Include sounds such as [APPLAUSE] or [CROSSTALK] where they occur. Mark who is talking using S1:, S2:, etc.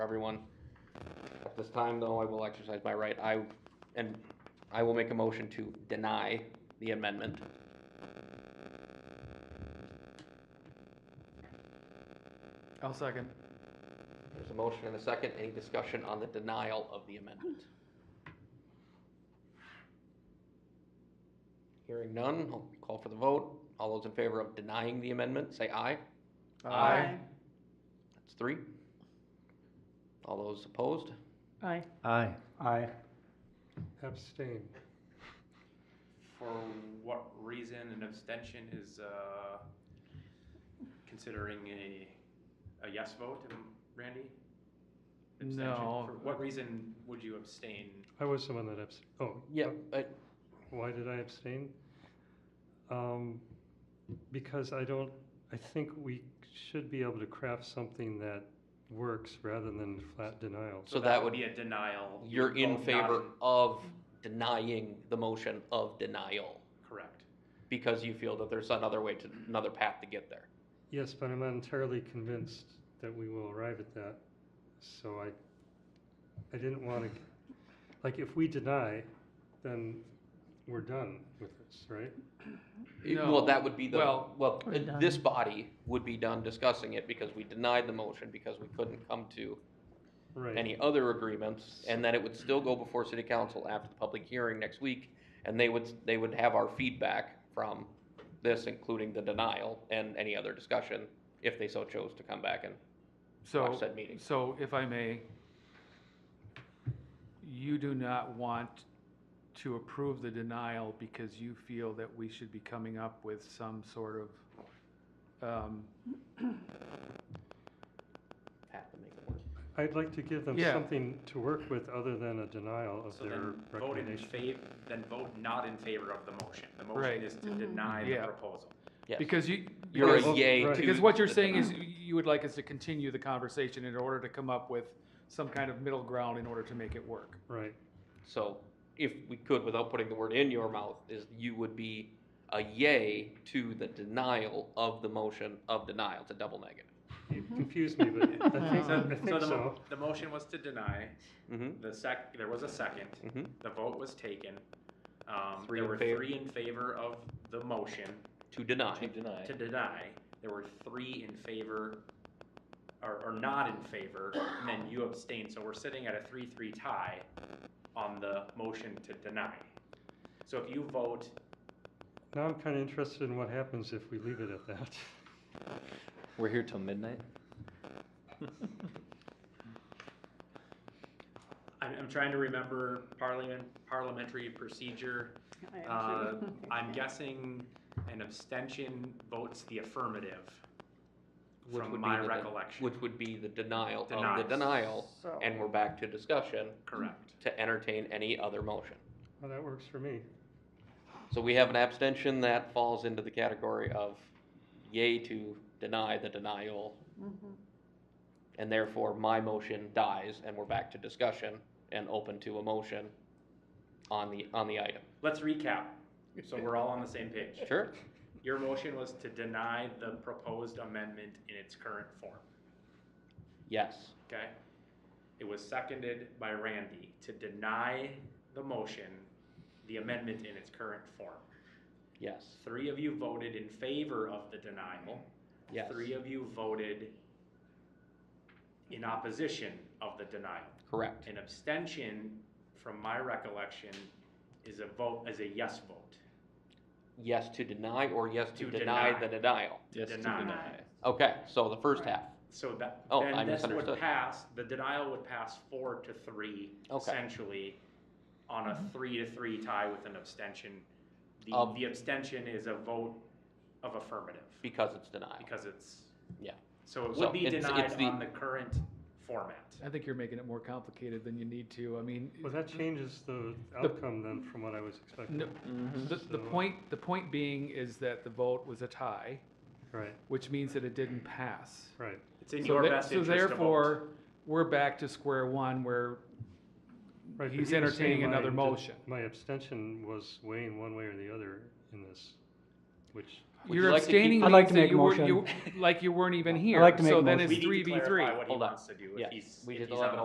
S1: everyone. At this time, though, I will exercise my right, I, and I will make a motion to deny the amendment.
S2: I'll second.
S1: There's a motion and a second, any discussion on the denial of the amendment? Hearing none, I'll call for the vote, all those in favor of denying the amendment, say aye. Aye. That's three. All those opposed?
S3: Aye.
S4: Aye.
S2: Aye.
S5: Abstain.
S6: For what reason an abstention is, uh, considering a, a yes vote, um, Randy? Abstention.
S2: No.
S6: For what reason would you abstain?
S5: I was the one that abstained. Oh,
S1: Yeah,
S6: uh,
S1: but
S5: why did I abstain? Um, because I don't, I think we should be able to craft something that works rather than flat denials.
S1: So that would-
S6: Be a denial. You
S1: you're
S6: would
S1: in
S6: vote
S1: favor
S6: not-
S1: of denying the motion of denial
S6: Correct.
S1: because you feel that there's another way to, another path to get there.
S5: Yes, but I'm not entirely convinced that we will arrive at that. So I, I didn't want to, like, if we deny, then we're done with this, right?
S1: It-
S2: No.
S1: Well, that would be the,
S2: Well-
S1: well,
S3: We're
S1: uh,
S3: done.
S1: this body would be done discussing it because we denied the motion because we couldn't come to
S5: Right.
S1: any other agreements. And then it would still go before city council after the public hearing next week. And they would, they would have our feedback from this, including the denial and any other discussion, if they so chose to come back and
S2: So,
S1: Watch that meeting.
S2: so if I may, you do not want to approve the denial because you feel that we should be coming up with some sort of, um,
S1: have to make it work.
S5: I'd like to give them
S2: Yeah.
S5: something to work with other than a denial of
S6: So
S5: their
S6: then vote in
S5: recommendation.
S6: favor, then vote not in favor of the motion. The
S2: Right.
S6: motion is to
S5: Mm-hmm.
S6: deny the
S2: Yeah.
S6: proposal.
S1: Yes.
S2: because you.
S1: You're
S2: because-
S1: a yay
S5: Right.
S1: to.
S2: Because what you're
S1: the
S2: saying
S1: denial.
S2: is you would like us to continue the conversation in order to come up with some kind of middle ground in order to make it work.
S5: Right,
S1: So if we could, without putting the word in your mouth, is you would be a yay to the denial of the motion of denial, to double negative.
S5: you confused
S2: [LAUGHS]
S5: me, but I think,
S6: So,
S5: I
S6: so
S5: think
S6: the,
S5: so.
S6: mo- the motion was to deny,
S1: Mm-hmm,
S6: the sec, there was a second,
S1: mm-hmm.
S6: the vote was taken. Um,
S1: Three
S6: there
S1: in
S6: were
S1: favor.
S6: three in favor of the motion
S1: To deny.
S6: To
S1: deny.
S6: to deny, there were three in favor, or, or not in favor, and then you abstained, so we're sitting at a three-three tie on the motion to deny. So if you vote,
S5: Now I'm kind of interested in what happens if we leave it at that.
S4: We're here till midnight?
S6: I'm, I'm trying to remember parliament, parliamentary procedure, Uh, [LAUGHS] I'm guessing an abstention votes the affirmative
S1: Which would
S6: from
S1: be
S6: my
S1: the de-
S6: recollection.
S1: Which would be the denial of the
S6: Denial.
S1: denial,
S3: So-
S1: and we're back to discussion
S6: Correct.
S1: to entertain any other motion.
S5: Well, that works for me.
S1: So we have an abstention that falls into the category of yay to deny the denial, and therefore my motion dies, and we're back to discussion and open to a motion on the, on the item.
S6: Let's recap, so we're all on the same page.
S1: Sure?
S6: Your motion was to deny the proposed amendment in its current form,
S1: Yes.
S6: okay? It was seconded by Randy to deny the motion, the amendment in its current form.
S1: Yes.
S6: Three of you voted in favor of the denial.
S1: Yes.
S6: Three of you voted in opposition of the denial.
S1: Correct.
S6: An abstention, from my recollection, is a vote, is a yes vote.
S1: Yes to deny or yes to
S6: To
S1: deny
S6: deny.
S1: the denial?
S6: To deny.
S1: Okay, so the first half.
S6: So that,
S1: Oh, I
S6: then this
S1: misunderstood.
S6: would pass, the denial would pass four to three,
S1: Okay.
S6: essentially, on a three to three tie with an abstention. The,
S1: Of-
S6: the abstention is a vote of affirmative,
S1: Because it's denial.
S6: because it's,
S1: Yeah.
S6: so it
S1: So
S6: would be
S1: it's- it's
S6: denied
S1: the-
S6: on the current format.
S2: I think you're making it more complicated than you need to. I mean.
S5: Well, that changes the outcome then from what I was expecting.
S2: No,
S6: Mm-hmm.
S2: the, the
S5: So-
S2: point, the point being is that the vote was a tie,
S5: Right,
S2: which means that it didn't pass.
S5: right.
S6: It's in
S2: So
S6: your
S2: the-
S6: best
S2: So
S6: interest to vote.
S2: therefore, we're back to square one where
S5: right, but
S2: He's
S5: you were saying
S2: entertaining
S5: my
S2: another
S5: d-
S2: motion.
S5: My abstention was weighing one way or the other in this, which
S1: Would you
S2: You're
S1: like to keep-
S2: abstaining
S3: I'd like
S2: means
S3: to
S2: that
S3: make a
S2: you weren't,
S3: motion.
S2: you, like you weren't even here.
S3: like to make a
S2: So then
S3: motion.
S2: it's
S6: We need
S2: three
S6: to
S2: v three.
S6: clarify what he
S1: Hold on.
S6: wants to do,
S1: Yeah,
S6: if he's,
S1: we
S6: if
S1: did
S6: he's
S1: eleven
S6: on